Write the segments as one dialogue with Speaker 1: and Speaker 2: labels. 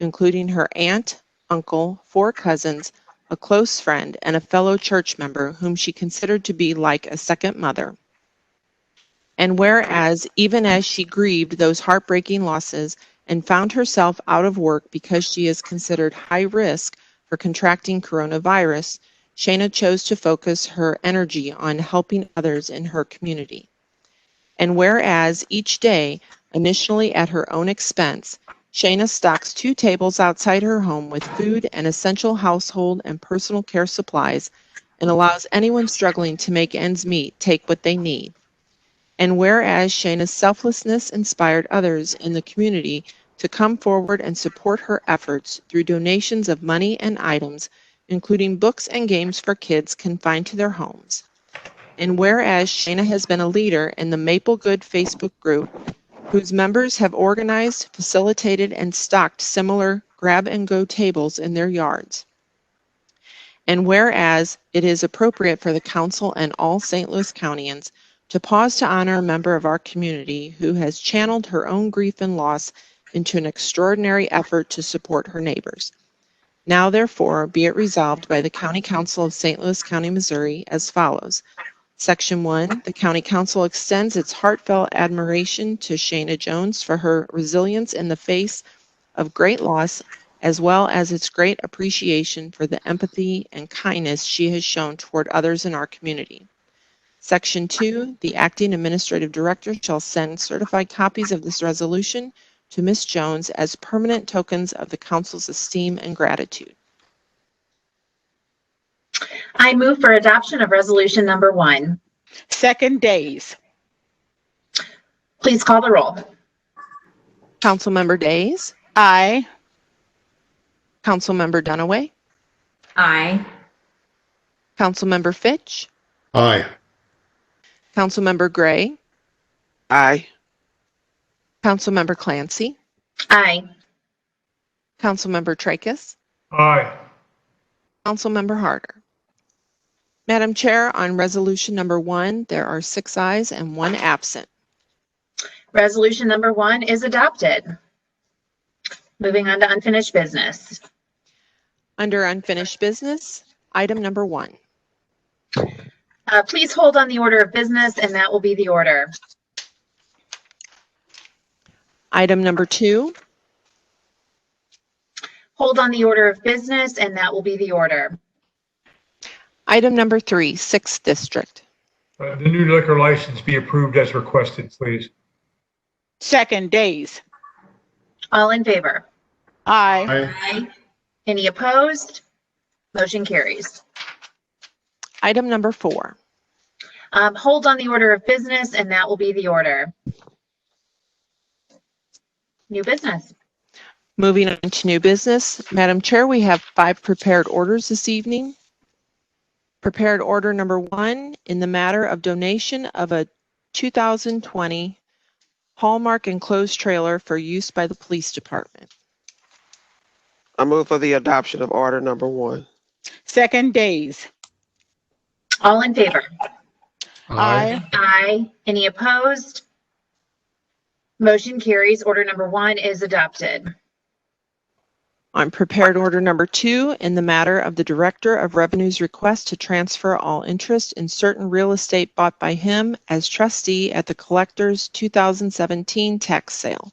Speaker 1: including her aunt, uncle, four cousins, a close friend, and a fellow church member whom she considered to be like a second mother. And whereas, even as she grieved those heartbreaking losses and found herself out of work because she is considered high risk for contracting coronavirus, Shana chose to focus her energy on helping others in her community. And whereas each day, initially at her own expense, Shana stocks two tables outside her home with food and essential household and personal care supplies and allows anyone struggling to make ends meet take what they need. And whereas Shana's selflessness inspired others in the community to come forward and support her efforts through donations of money and items, including books and games for kids confined to their homes. And whereas Shana has been a leader in the Maple Good Facebook group, whose members have organized, facilitated, and stocked similar grab and go tables in their yards. And whereas it is appropriate for the council and all St. Louis Countyans to pause to honor a member of our community who has channeled her own grief and loss into an extraordinary effort to support her neighbors. Now therefore be it resolved by the County Council of St. Louis County, Missouri as follows. Section 1, the County Council extends its heartfelt admiration to Shana Jones for her resilience in the face of great loss as well as its great appreciation for the empathy and kindness she has shown toward others in our community. Section 2, the acting administrative director shall send certified copies of this resolution to Ms. Jones as permanent tokens of the council's esteem and gratitude.
Speaker 2: I move for adoption of resolution number one.
Speaker 3: Second days.
Speaker 2: Please call the roll.
Speaker 1: Councilmember Days,
Speaker 3: Aye.
Speaker 1: Councilmember Dunaway,
Speaker 2: Aye.
Speaker 1: Councilmember Fitch,
Speaker 4: Aye.
Speaker 1: Councilmember Gray,
Speaker 5: Aye.
Speaker 1: Councilmember Clancy,
Speaker 2: Aye.
Speaker 1: Councilmember Tracus,
Speaker 4: Aye.
Speaker 1: Councilmember Harder. Madam Chair, on resolution number one, there are six ayes and one absent.
Speaker 2: Resolution number one is adopted. Moving on to unfinished business.
Speaker 1: Under unfinished business, item number one.
Speaker 2: Uh, Please hold on the order of business, and that will be the order.
Speaker 1: Item number two,
Speaker 2: Hold on the order of business, and that will be the order.
Speaker 1: item number three, sixth district.
Speaker 4: Uh, The new liquor license be approved as requested, please.
Speaker 3: Second days.
Speaker 2: All in favor?
Speaker 3: Aye.
Speaker 2: Aye. Any opposed? Motion carries.
Speaker 1: Item number four,
Speaker 2: Um, Hold on the order of business, and that will be the order. New business.
Speaker 1: moving on to new business. Madam Chair, we have five prepared orders this evening. Prepared order number one, in the matter of donation of a 2020 Hallmark enclosed trailer for use by the police department.
Speaker 5: I move for the adoption of order number one.
Speaker 3: Second days.
Speaker 2: All in favor?
Speaker 3: Aye.
Speaker 2: Aye. Any opposed? Motion carries. Order number one is adopted.
Speaker 1: On prepared order number two, in the matter of the Director of Revenue's request to transfer all interest in certain real estate bought by him as trustee at the collector's 2017 tax sale.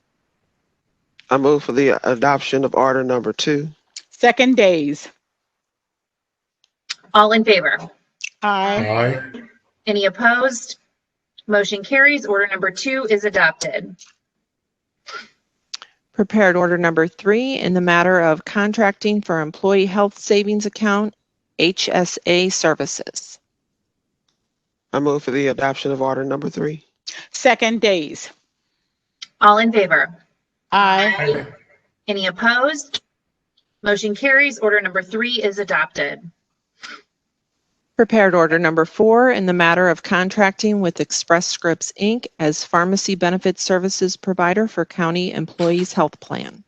Speaker 5: I move for the adoption of order number two.
Speaker 3: Second days.
Speaker 2: All in favor?
Speaker 3: Aye.
Speaker 4: Aye.
Speaker 2: Any opposed? Motion carries. Order number two is adopted.
Speaker 1: Prepared order number three, in the matter of contracting for employee health savings account, HSA services.
Speaker 5: I move for the adoption of order number three.
Speaker 3: Second days.
Speaker 2: All in favor?
Speaker 3: Aye.
Speaker 2: Any opposed? Motion carries. Order number three is adopted.
Speaker 1: Prepared order number four, in the matter of contracting with Express Scripts, Inc. as pharmacy benefit services provider for county employees' health plan.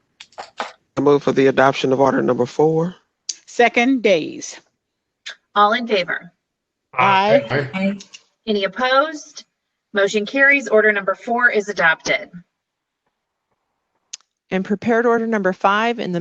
Speaker 5: I move for the adoption of order number four.
Speaker 3: Second days.
Speaker 2: All in favor?
Speaker 4: Uh,
Speaker 3: Aye.
Speaker 2: Any opposed? Motion carries. Order number four is adopted.
Speaker 1: And prepared order number five in the